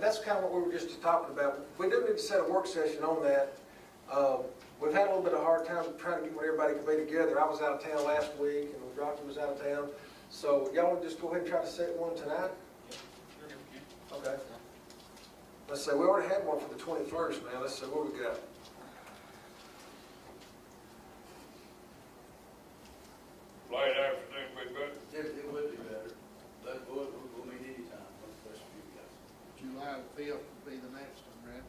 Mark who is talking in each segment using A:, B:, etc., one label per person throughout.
A: that's kind of what we were just talking about. We do need to set a work session on that. Um, We've had a little bit of hard time trying to get when everybody could be together. I was out of town last week, and Rocky was out of town. So y'all wanna just go ahead and try to set one tonight? Okay. Let's say, we already had one for the twenty-first, man. Let's see, what we got?
B: Late afternoon, we better,
C: It, it would be better, but we'll, we'll we'll meet anytime, what's best for you guys.
D: July the fifth would be the next one, right?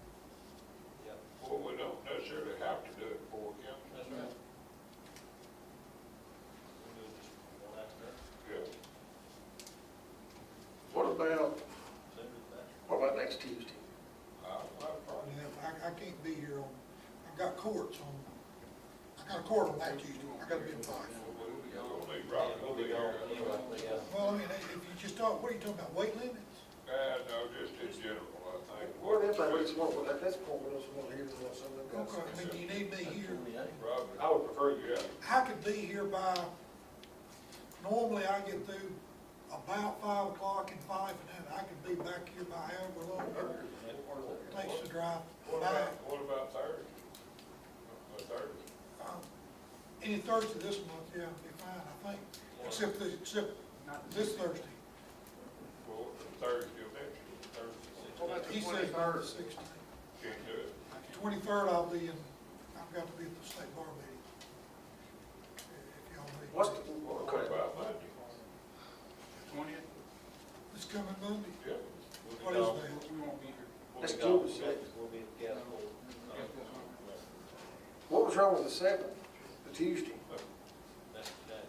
B: well, we don't necessarily have to do it before council.
E: That's right. We'll do it just one after,
B: Yeah.
A: What about,
E: sooner the better.
A: what about next Tuesday?
B: I, I probably,
F: Yeah, I, I can't be here on, I've got courts on, I got a court on that Tuesday, I gotta be in five.
B: we'll we'll need
E: Yeah,
B: Rocky
E: we'll
B: to
E: be
B: be
E: gone
B: here.
E: anyway, yeah.
F: Well, I mean, if you just talk, what are you talking about, weight limits?
B: Uh, no, just in general, I think.
A: Well, if I just want, well, at this point, we just want to hear from someone else.
F: Okay, I mean, do you need me here?
B: Rob, I would prefer you out.
F: I could be here by, normally I get through about five o'clock and five, and then I could be back here by however long it takes to drive
B: What
A: Uh-huh.
F: back.
B: about, what about Thursday? Uh, Thursday?
F: Um, Any Thursday this month, yeah, it'd be fine, I think, except, the- except this Thursday.
B: Well, Thursday, eventually, Thursday.
F: He says
D: twenty-third?
F: sixteen.
B: Can't do it.
F: Twenty-third, I'll be in, I've got to be at the state bar meeting. If y'all need-
A: What's the,
B: What
A: okay,
B: about Monday?
G: Twentieth,
F: This coming Monday,
B: Yeah.
F: what is that?
G: we won't be here.
E: We'll
A: Let's
E: be
A: do
E: gone,
A: the sixth.
E: we'll be at the gas hole.
A: what was wrong with the seventh, the Tuesday?
E: That's today.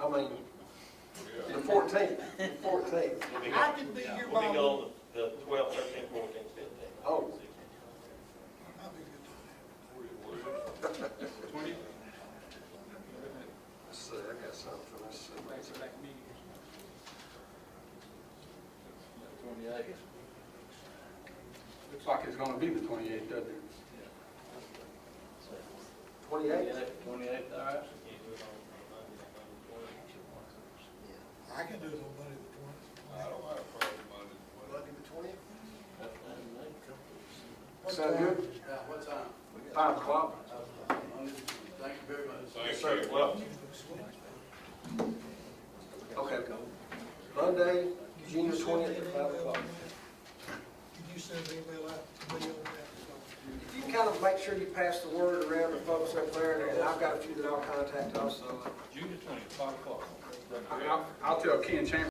A: I mean,
B: Yeah.
A: the fourteenth, the fourteenth.
E: We'll be
F: I
E: gone-
F: can be here
E: We'll be
F: by, I'll
E: gone the twelfth, thirteenth, fourteenth, fifteenth.
A: Oh.
F: be good to
G: Twentieth,
A: Let's see, I got something, let's see.
G: back to back meeting.
C: Twenty-eighth.
G: Looks like it's gonna be the twenty-eighth, doesn't it?
A: Twenty-eighth,
C: Twenty-eighth, all right.
F: that. I can do it on Monday
B: I
F: the
B: don't have a problem Monday.
A: Monday the twentieth?
F: twentieth.
A: Sound good?
C: Yeah, what time?
A: Five o'clock.
C: Monday, thank you very much.
B: Thank you. Well,
A: Okay. Monday, June twentieth at five o'clock.
F: Can you send an email out to me on
A: If
F: that?
A: you kind of make sure you pass the word around to folks up there, and I've got a few that I'll contact also.
G: June the twentieth, five o'clock.
A: I mean, I'll-
G: I'll tell Ken Chambers